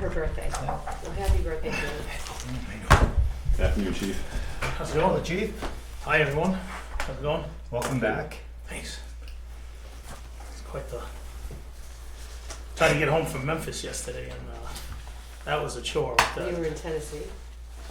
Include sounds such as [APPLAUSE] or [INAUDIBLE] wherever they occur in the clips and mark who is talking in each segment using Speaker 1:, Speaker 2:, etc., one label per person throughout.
Speaker 1: birthday. Well, happy birthday, Jim.
Speaker 2: Afternoon, chief.
Speaker 3: How's it going, Chief? Hi, everyone. How's it going?
Speaker 4: Welcome back.
Speaker 3: Thanks. It's quite the. Tried to get home from Memphis yesterday, and uh, that was a chore. With
Speaker 1: You
Speaker 3: that.
Speaker 1: were in Tennessee.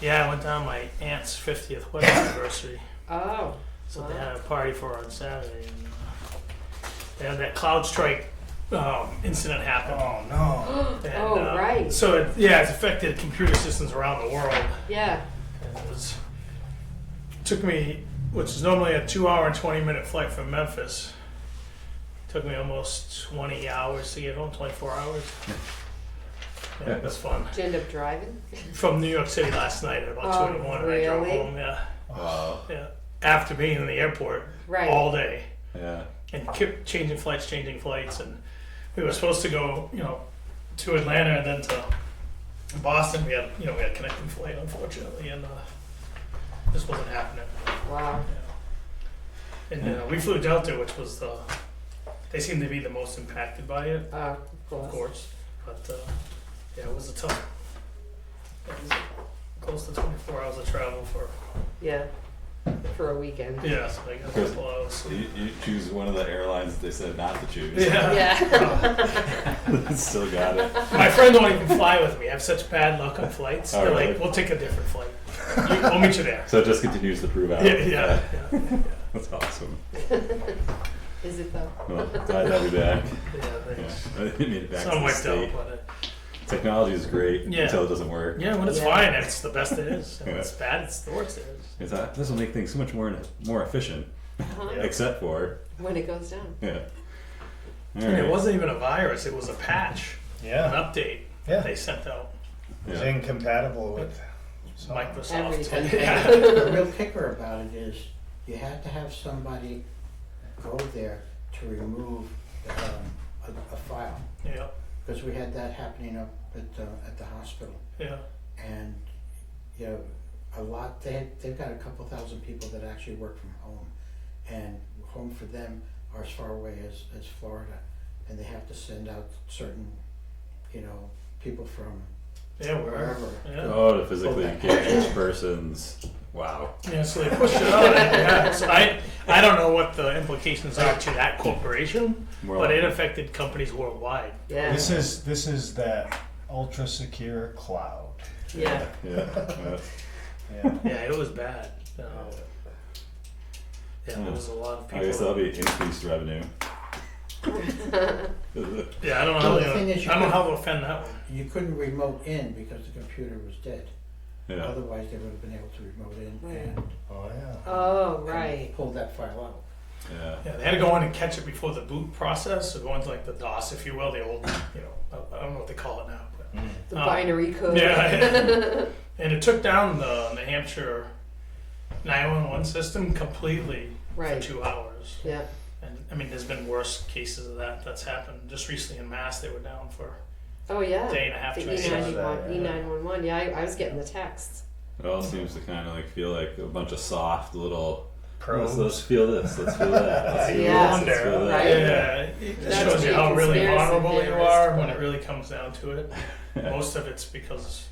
Speaker 3: Yeah, I went down my aunt's 50th wedding anniversary,
Speaker 1: Oh,
Speaker 3: so they had a party for her on Saturday, and uh, they had that cloud strike um, incident happen.
Speaker 4: Oh no.
Speaker 3: And,
Speaker 1: Oh,
Speaker 3: uh,
Speaker 1: right.
Speaker 3: So it, yeah, it's affected computer systems around the world.
Speaker 1: yeah.
Speaker 3: And it was took me, which is normally a two-hour and twenty-minute flight from Memphis. Took me almost twenty hours to get home, twenty-four hours. Yeah, it was fun.
Speaker 1: Did you end up driving?
Speaker 3: From New York City last night at about
Speaker 1: Oh,
Speaker 3: two in the morning, I drove
Speaker 1: really?
Speaker 3: home. Yeah,
Speaker 2: Uh,
Speaker 3: yeah. After being in the airport
Speaker 1: Right.
Speaker 3: all day
Speaker 2: yeah.
Speaker 3: and kept changing flights, changing flights, and we were supposed to go, you know, to Atlanta and then to Boston. We had, you know, we had a connecting flight, unfortunately, and uh, this wasn't happening.
Speaker 1: Wow.
Speaker 3: And uh, we flew Delta, which was the, they seemed to be the most impacted by it,
Speaker 1: Oh, of course.
Speaker 3: of course. But uh, yeah, it was a tough, it was close to 24 hours of travel for,
Speaker 1: Yeah. For a weekend.
Speaker 3: yeah, so I got a couple hours.
Speaker 2: You, you choose one of the airlines that they said not to choose.
Speaker 3: Yeah.
Speaker 1: Yeah.
Speaker 2: [LAUGHS] Still got it.
Speaker 3: My friend won't even fly with me. I have such bad luck on flights.
Speaker 2: Oh,
Speaker 3: They're
Speaker 2: really?
Speaker 3: like, we'll take a different flight. [LAUGHS] You, we'll meet you there.
Speaker 2: So it just continues to prove
Speaker 3: [LAUGHS]
Speaker 2: out.
Speaker 3: Yeah, yeah, yeah.
Speaker 2: That's awesome.
Speaker 1: Is it though?
Speaker 2: Well, glad to have you back.
Speaker 3: yeah,
Speaker 2: Yeah.
Speaker 3: thanks.
Speaker 2: I didn't mean it back
Speaker 3: Some
Speaker 2: to the
Speaker 3: wiped out,
Speaker 2: state.
Speaker 3: but
Speaker 2: Technology is great
Speaker 3: Yeah.
Speaker 2: until it doesn't work.
Speaker 3: uh, yeah, when it's
Speaker 1: Yeah.
Speaker 3: fine, it's the best it is. And When it's
Speaker 2: Yeah.
Speaker 3: bad, it's the worst it is.
Speaker 2: It's uh, this will make things so much more more efficient,
Speaker 1: Uh-huh.
Speaker 3: Yeah.
Speaker 2: except for
Speaker 1: When it goes down.
Speaker 2: yeah. All
Speaker 3: And
Speaker 2: right.
Speaker 3: it wasn't even a virus; it was a patch, an
Speaker 4: Yeah.
Speaker 3: update
Speaker 4: Yeah.
Speaker 3: they sent out.
Speaker 4: It's
Speaker 2: Yeah.
Speaker 4: incompatible with. so-
Speaker 3: Microsoft.
Speaker 1: Everything.
Speaker 3: Yeah.
Speaker 5: The real kicker about it is you have to have somebody go there to remove um, a, a file.
Speaker 3: [LAUGHS] yeah,
Speaker 5: Because we had that happening up at, uh, at the hospital.
Speaker 3: yeah,
Speaker 5: And, you know, a lot, they, they've got a couple thousand people that actually work from home. And home for them are as far away as, as Florida. And they have to send out certain, you know, people from
Speaker 3: yeah, wherever.
Speaker 5: wherever.
Speaker 3: Yeah.
Speaker 2: Oh, to physically engage each person's wow.
Speaker 3: yeah, so they pushed it
Speaker 5: [LAUGHS]
Speaker 3: out. Yeah. So I, I don't know what the implications are to that corporation,
Speaker 2: More
Speaker 3: but
Speaker 2: like-
Speaker 3: [LAUGHS] it affected companies worldwide.
Speaker 1: Yeah.
Speaker 4: This is this is that ultra secure cloud.
Speaker 1: Yeah.
Speaker 2: yeah. yeah.
Speaker 4: Yeah.
Speaker 2: Hmm.
Speaker 3: Yeah, it was bad. Uh, yeah, there was a lot of
Speaker 2: I guess that'll
Speaker 3: people.
Speaker 2: be increased revenue.
Speaker 3: Yeah, I don't know how
Speaker 5: Well,
Speaker 3: they're
Speaker 5: the thing
Speaker 3: gonna, I don't
Speaker 5: is you
Speaker 3: know
Speaker 5: could-
Speaker 3: how they'll offend that one.
Speaker 5: You couldn't remote in because the computer was dead.
Speaker 2: yeah.
Speaker 5: Otherwise, they would have been able to remote in
Speaker 1: Right.
Speaker 5: and
Speaker 4: Oh yeah.
Speaker 1: Oh,
Speaker 5: and
Speaker 1: right.
Speaker 5: pull that file out.
Speaker 2: Yeah.
Speaker 3: Yeah, they had to go in and catch it before the boot process, so go into like the DOS, if you will, the old, you know, I I don't know what they call it now, but
Speaker 1: The
Speaker 2: Uh,
Speaker 3: Oh.
Speaker 1: binary code.
Speaker 3: [LAUGHS] Yeah. And it took down the New Hampshire 911 system completely for
Speaker 1: right.
Speaker 3: two hours.
Speaker 1: Yeah.
Speaker 3: And I mean, there's been worse cases of that that's happened. Just recently in Mass, they were down for
Speaker 1: Oh
Speaker 3: a
Speaker 1: yeah.
Speaker 3: day and a half,
Speaker 1: The
Speaker 3: two
Speaker 1: E
Speaker 3: days.
Speaker 4: E9.
Speaker 1: ninety one,
Speaker 4: Yeah.
Speaker 1: E nine one one. Yeah, I, I was getting the texts.
Speaker 2: It all seems to kind of like feel like a bunch of soft little. Let's, let's
Speaker 4: Pros.
Speaker 2: feel this. Let's feel that. Let's feel
Speaker 1: Yeah.
Speaker 2: this. Let's feel that.
Speaker 1: Right.
Speaker 3: Yeah, it just
Speaker 1: That's
Speaker 3: shows you how
Speaker 1: the
Speaker 3: really
Speaker 1: conspiracy
Speaker 3: vulnerable you
Speaker 1: theorist.
Speaker 3: are when it really comes down to it. [LAUGHS] Most of it's because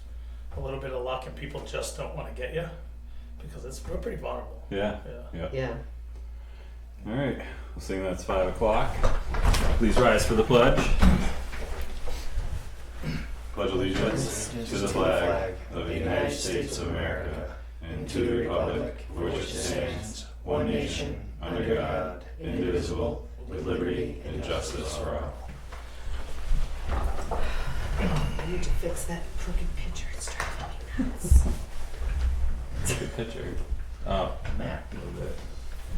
Speaker 3: a little bit of luck and people just don't want to get you because it's we're pretty vulnerable.
Speaker 2: Yeah.
Speaker 3: Yeah.
Speaker 1: Yeah.
Speaker 2: All right. We'll sing that's five o'clock. Please rise for the pledge. Pledge allegiance to the flag of the United States of America and to the republic for which it stands, one nation under God, indivisible, with liberty and justice for all.
Speaker 1: I need to fix that crooked picture. It's driving me nuts.
Speaker 2: Good picture. Oh, Mac a little bit.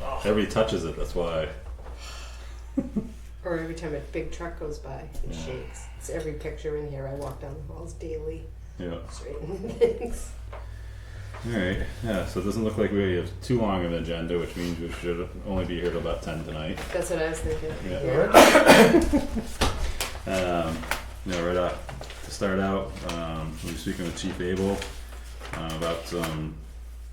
Speaker 3: Oh.
Speaker 2: Everybody touches it. That's why.
Speaker 1: Or every time a big truck goes by, it shakes. It's every picture in here. I walk down the halls daily,
Speaker 2: Yeah.
Speaker 1: straightening [LAUGHS] things.
Speaker 2: All right. Yeah. So it doesn't look like we have too long of an agenda, which means we should only be here till about ten tonight.
Speaker 1: That's what I was thinking.
Speaker 2: Yeah.
Speaker 1: Yeah.
Speaker 2: Um, you know, right off to start out, um, we were speaking with Chief Abel uh, about some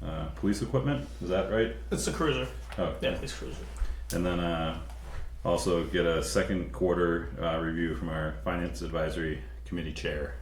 Speaker 2: uh, police equipment. Is that right?
Speaker 3: It's the cruiser.
Speaker 2: Oh,
Speaker 3: Yeah, it's cruiser.
Speaker 2: And then uh, also get a second quarter uh, review from our finance advisory committee chair.